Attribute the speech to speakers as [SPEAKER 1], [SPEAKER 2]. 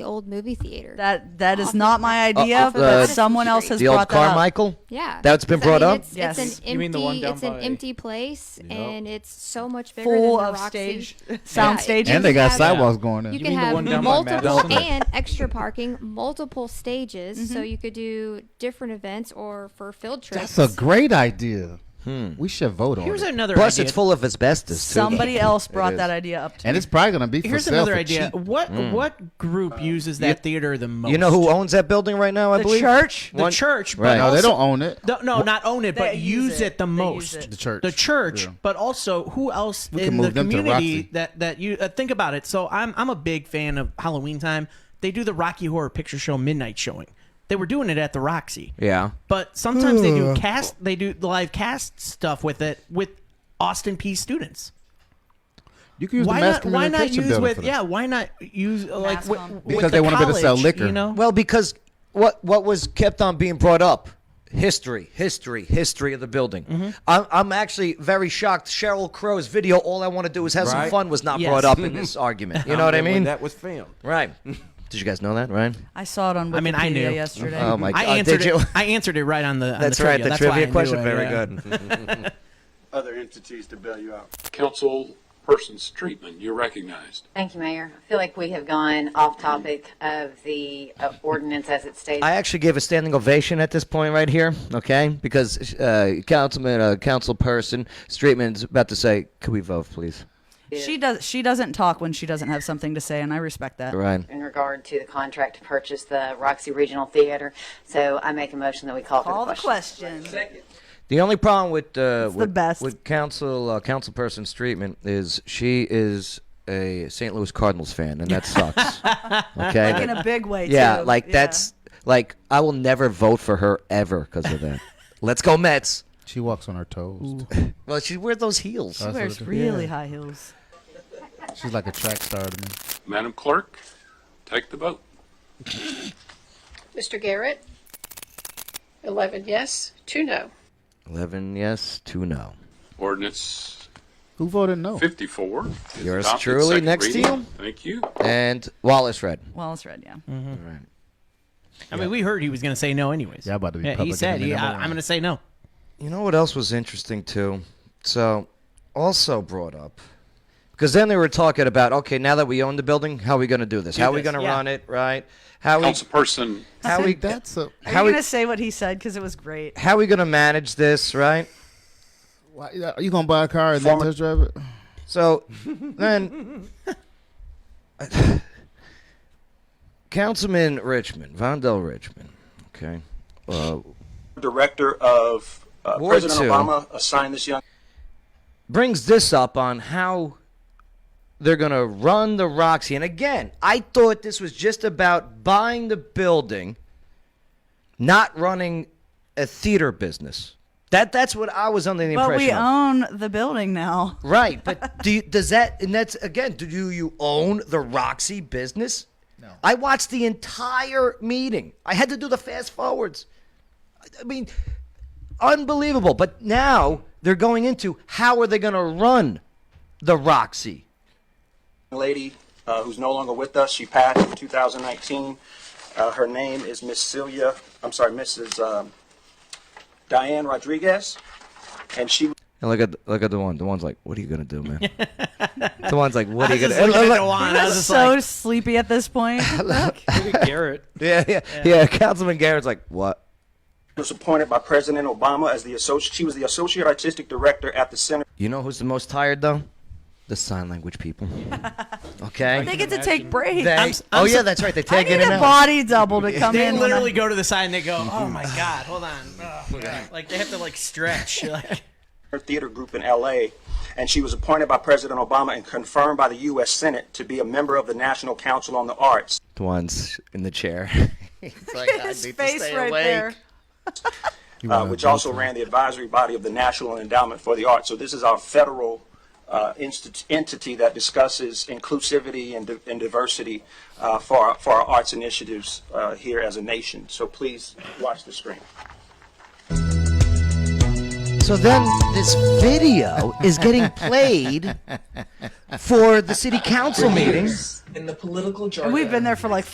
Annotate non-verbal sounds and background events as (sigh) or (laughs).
[SPEAKER 1] the old movie theater.
[SPEAKER 2] That that is not my idea,
[SPEAKER 1] of the-
[SPEAKER 2] but
[SPEAKER 1] uh,
[SPEAKER 2] someone else has
[SPEAKER 1] Just
[SPEAKER 2] brought
[SPEAKER 1] The
[SPEAKER 2] that
[SPEAKER 1] old
[SPEAKER 2] up.
[SPEAKER 1] yeah,
[SPEAKER 3] That's been
[SPEAKER 1] 'Cause, I
[SPEAKER 3] brought
[SPEAKER 1] mean,
[SPEAKER 3] up?
[SPEAKER 1] It's,
[SPEAKER 2] Yes.
[SPEAKER 1] it's an
[SPEAKER 4] You mean the one
[SPEAKER 1] empty.
[SPEAKER 4] down
[SPEAKER 1] It's an
[SPEAKER 4] by-
[SPEAKER 1] empty place,
[SPEAKER 4] Yep.
[SPEAKER 1] and it's so much bigger
[SPEAKER 2] Full
[SPEAKER 1] than the
[SPEAKER 2] of
[SPEAKER 1] Roxy.
[SPEAKER 2] stage,
[SPEAKER 1] (laughs) Yeah,
[SPEAKER 2] sound
[SPEAKER 1] it-
[SPEAKER 2] stages.
[SPEAKER 1] you
[SPEAKER 3] And they got
[SPEAKER 1] have-
[SPEAKER 3] sidewalks going in.
[SPEAKER 1] You
[SPEAKER 4] You
[SPEAKER 1] can
[SPEAKER 4] mean the
[SPEAKER 1] have
[SPEAKER 4] one down by
[SPEAKER 1] multiple
[SPEAKER 4] Madison? Mm-hmm.
[SPEAKER 1] and extra parking, multiple stages, so you could do different events or for field trips.
[SPEAKER 5] That's a great idea. We should vote on
[SPEAKER 6] Here's
[SPEAKER 5] it.
[SPEAKER 6] another
[SPEAKER 3] Plus,
[SPEAKER 6] idea.
[SPEAKER 3] it's full of asbestos. too.
[SPEAKER 5] (laughs)
[SPEAKER 2] Somebody else
[SPEAKER 3] It
[SPEAKER 2] brought
[SPEAKER 3] is.
[SPEAKER 2] that idea up. To
[SPEAKER 5] and
[SPEAKER 2] me.
[SPEAKER 5] it's probably going to be for
[SPEAKER 6] Here's
[SPEAKER 5] sale
[SPEAKER 6] another
[SPEAKER 5] for
[SPEAKER 6] idea.
[SPEAKER 5] cheap.
[SPEAKER 6] What what group uses that theater the most?
[SPEAKER 3] You know who owns that building right now? I
[SPEAKER 2] the
[SPEAKER 3] believe
[SPEAKER 2] church.
[SPEAKER 6] the
[SPEAKER 3] One-
[SPEAKER 6] church, but
[SPEAKER 3] Right.
[SPEAKER 5] No, they
[SPEAKER 6] also-
[SPEAKER 5] don't own it.
[SPEAKER 6] The- no, not own it, but
[SPEAKER 2] They
[SPEAKER 6] use,
[SPEAKER 2] use
[SPEAKER 6] it,
[SPEAKER 2] it.
[SPEAKER 6] the
[SPEAKER 2] They use
[SPEAKER 6] most.
[SPEAKER 2] it.
[SPEAKER 5] The church.
[SPEAKER 6] The church,
[SPEAKER 5] Yeah.
[SPEAKER 6] but also who else
[SPEAKER 5] We
[SPEAKER 6] in
[SPEAKER 5] can
[SPEAKER 6] the
[SPEAKER 5] move them to
[SPEAKER 6] community
[SPEAKER 5] Roxy.
[SPEAKER 6] that that you uh, think about it. So I'm I'm a big fan of Halloween time. They do the Rocky Horror Picture Show midnight showing. They were doing it at the Roxy.
[SPEAKER 3] Yeah.
[SPEAKER 6] But sometimes they
[SPEAKER 5] Hmm.
[SPEAKER 6] do cast they do the live cast stuff with it with Austin P students.
[SPEAKER 5] You can use
[SPEAKER 6] why
[SPEAKER 5] the
[SPEAKER 6] not
[SPEAKER 5] masculine
[SPEAKER 6] why not
[SPEAKER 5] detention
[SPEAKER 6] use
[SPEAKER 5] building
[SPEAKER 6] with
[SPEAKER 5] for that.
[SPEAKER 6] yeah, why not use uh, like
[SPEAKER 2] Mass
[SPEAKER 6] with,
[SPEAKER 2] com.
[SPEAKER 6] with
[SPEAKER 5] Because
[SPEAKER 6] the
[SPEAKER 5] they wanted to sell
[SPEAKER 6] college,
[SPEAKER 5] liquor.
[SPEAKER 6] you know?
[SPEAKER 3] Well, because what what was kept on being brought up? History, history, history of the building. I'm, I'm actually very shocked. Cheryl Crow's video, All I Want to Do Is Have Some
[SPEAKER 4] Right.
[SPEAKER 3] Fun, was not
[SPEAKER 6] Yes.
[SPEAKER 3] brought up in this argument. You know what I
[SPEAKER 4] When
[SPEAKER 3] mean?
[SPEAKER 4] That was filmed.
[SPEAKER 3] Right. Did you guys know that, Ryan?
[SPEAKER 2] I saw it on Wikipedia
[SPEAKER 6] I mean, I knew.
[SPEAKER 2] yesterday.
[SPEAKER 3] Oh, my God.
[SPEAKER 6] I answered
[SPEAKER 3] Did you?
[SPEAKER 6] it. I answered it right on the. On
[SPEAKER 3] That's
[SPEAKER 6] the
[SPEAKER 3] right.
[SPEAKER 6] Trivia.
[SPEAKER 3] The
[SPEAKER 6] That's why I
[SPEAKER 3] trivia
[SPEAKER 6] knew
[SPEAKER 3] question.
[SPEAKER 6] it,
[SPEAKER 3] Very
[SPEAKER 6] yeah.
[SPEAKER 3] good.
[SPEAKER 7] other entities to bail you out.
[SPEAKER 8] council person's treatment. You're recognized.
[SPEAKER 9] Thank you, Mayor. I feel like we have gone off topic of the uh, ordinance as it states.
[SPEAKER 3] I actually gave a standing ovation at this point right here, okay? Because uh, councilman, uh, council person, Streetman's about to say, "Could we vote, please?"
[SPEAKER 2] She does. She doesn't talk when she doesn't have something to say, and I respect that.
[SPEAKER 3] Ryan.
[SPEAKER 9] in regard to the contract to purchase the Roxy Regional Theater. So I make a motion that we call for
[SPEAKER 2] All
[SPEAKER 9] the
[SPEAKER 2] the
[SPEAKER 9] question.
[SPEAKER 2] questions.
[SPEAKER 3] The only problem with uh,
[SPEAKER 2] the
[SPEAKER 3] with,
[SPEAKER 2] best.
[SPEAKER 3] with council uh, councilperson's treatment is she is a St. Louis Cardinals fan, and
[SPEAKER 2] (laughs)
[SPEAKER 3] that sucks. okay.
[SPEAKER 2] in a big way.
[SPEAKER 3] yeah,
[SPEAKER 2] too.
[SPEAKER 3] like
[SPEAKER 2] Yeah.
[SPEAKER 3] that's like I will never vote for her ever because
[SPEAKER 2] (laughs)
[SPEAKER 3] of that. Let's go Mets.
[SPEAKER 5] She walks on her toes.
[SPEAKER 3] Well, she wear those heels.
[SPEAKER 2] She wears really high heels.
[SPEAKER 5] (laughs) She's like a track star to me.
[SPEAKER 8] Madam Clerk, take the vote.
[SPEAKER 10] Mr. Garrett? 11 yes, 2 no.
[SPEAKER 3] Eleven yes, two no.
[SPEAKER 8] Ordinance
[SPEAKER 5] Who voted no?
[SPEAKER 8] 54. is
[SPEAKER 3] Yours
[SPEAKER 8] adopted,
[SPEAKER 3] truly,
[SPEAKER 8] second
[SPEAKER 3] next to
[SPEAKER 8] reading.
[SPEAKER 3] you.
[SPEAKER 8] Thank you.
[SPEAKER 3] And Wallace read.
[SPEAKER 2] Well, it's red. Yeah.
[SPEAKER 6] I mean, we heard he was going to say no, anyways.
[SPEAKER 5] Yeah, about to be
[SPEAKER 6] he
[SPEAKER 5] public
[SPEAKER 6] said,
[SPEAKER 5] enemy
[SPEAKER 6] he,
[SPEAKER 5] number
[SPEAKER 6] I,
[SPEAKER 5] one.
[SPEAKER 6] "I'm going to say no."
[SPEAKER 3] You know what else was interesting too? So, also brought up because then they were talking about okay, now that we own the building, how are we going to do this? how are we
[SPEAKER 6] this,
[SPEAKER 3] going to
[SPEAKER 6] yeah.
[SPEAKER 3] run it? Right? How we
[SPEAKER 8] Councilperson,
[SPEAKER 3] how we
[SPEAKER 5] That's a.
[SPEAKER 2] Are
[SPEAKER 3] how
[SPEAKER 2] you
[SPEAKER 3] we
[SPEAKER 2] gonna say what he said? Because it was great.
[SPEAKER 3] how we going to manage this? Right?
[SPEAKER 5] Why, are you gonna buy a car and then
[SPEAKER 8] Former-
[SPEAKER 5] test drive it?
[SPEAKER 3] So then, Councilman Richmond, Vondell Richmond. Okay. Uh,
[SPEAKER 7] Director of uh,
[SPEAKER 3] Ward
[SPEAKER 7] President
[SPEAKER 3] two.
[SPEAKER 7] Obama assigned this young
[SPEAKER 3] brings this up on how they're going to run the Roxy. And again, I thought this was just about buying the building, not running a theater business. That that's what I was under the
[SPEAKER 2] But
[SPEAKER 3] impression.
[SPEAKER 2] we
[SPEAKER 3] of.
[SPEAKER 2] own the building now.
[SPEAKER 3] Right, but do you, does that and that's again? Do you, you own the Roxy business? No. I watched the entire meeting. I had to do the fast forwards. I- I mean, unbelievable. But now they're going into how are they going to run the Roxy?
[SPEAKER 7] lady uh, who's no longer with us. She passed in 2019. Uh, her name is Miss Celia. I'm sorry, Mrs. Um, Diane Rodriguez, and she
[SPEAKER 3] And look at look at the one. The one's like, "What are you going to do, man?" the one's like, "What are you
[SPEAKER 6] Just
[SPEAKER 3] going
[SPEAKER 6] looking at
[SPEAKER 3] to?"
[SPEAKER 6] Dewan, I was just
[SPEAKER 2] So
[SPEAKER 6] like,
[SPEAKER 2] sleepy at this point. Look,
[SPEAKER 6] (laughs)
[SPEAKER 4] Garrett.
[SPEAKER 3] (laughs) Yeah, yeah, yeah. Councilman Garrett's like, "What?"
[SPEAKER 7] was appointed by President Obama as the associate. She was the associate artistic director at the Center.
[SPEAKER 3] You know who's the most tired though? The sign language people. Okay.
[SPEAKER 2] they get to take breaks.
[SPEAKER 3] They-
[SPEAKER 6] I'm s- I'm
[SPEAKER 3] oh
[SPEAKER 6] s-
[SPEAKER 3] yeah, that's right. They
[SPEAKER 2] I
[SPEAKER 3] tag
[SPEAKER 2] need
[SPEAKER 3] in and
[SPEAKER 2] a
[SPEAKER 3] out.
[SPEAKER 2] body double to come
[SPEAKER 6] they
[SPEAKER 2] in. when (laughs)
[SPEAKER 6] literally go to the side and they go,
[SPEAKER 5] (laughs)
[SPEAKER 6] "Oh my god, hold on!" Oh, God." Like they have to like stretch. (laughs) Like,
[SPEAKER 7] her theater group in LA, and she was appointed by President Obama and confirmed by the U.S. Senate to be a member of the National Council on the Arts.
[SPEAKER 3] Once in the chair. it's like,
[SPEAKER 2] I'm- His face right there.
[SPEAKER 7] uh, which also ran the advisory body of the National Endowment for the Arts. So this is our federal uh, instit- entity that discusses inclusivity and, di- and diversity uh, for, our, for our arts initiatives uh, here as a nation. So please watch the screen.
[SPEAKER 3] So then this (laughs) video is getting played for the city council meeting.
[SPEAKER 2] And we've been there for like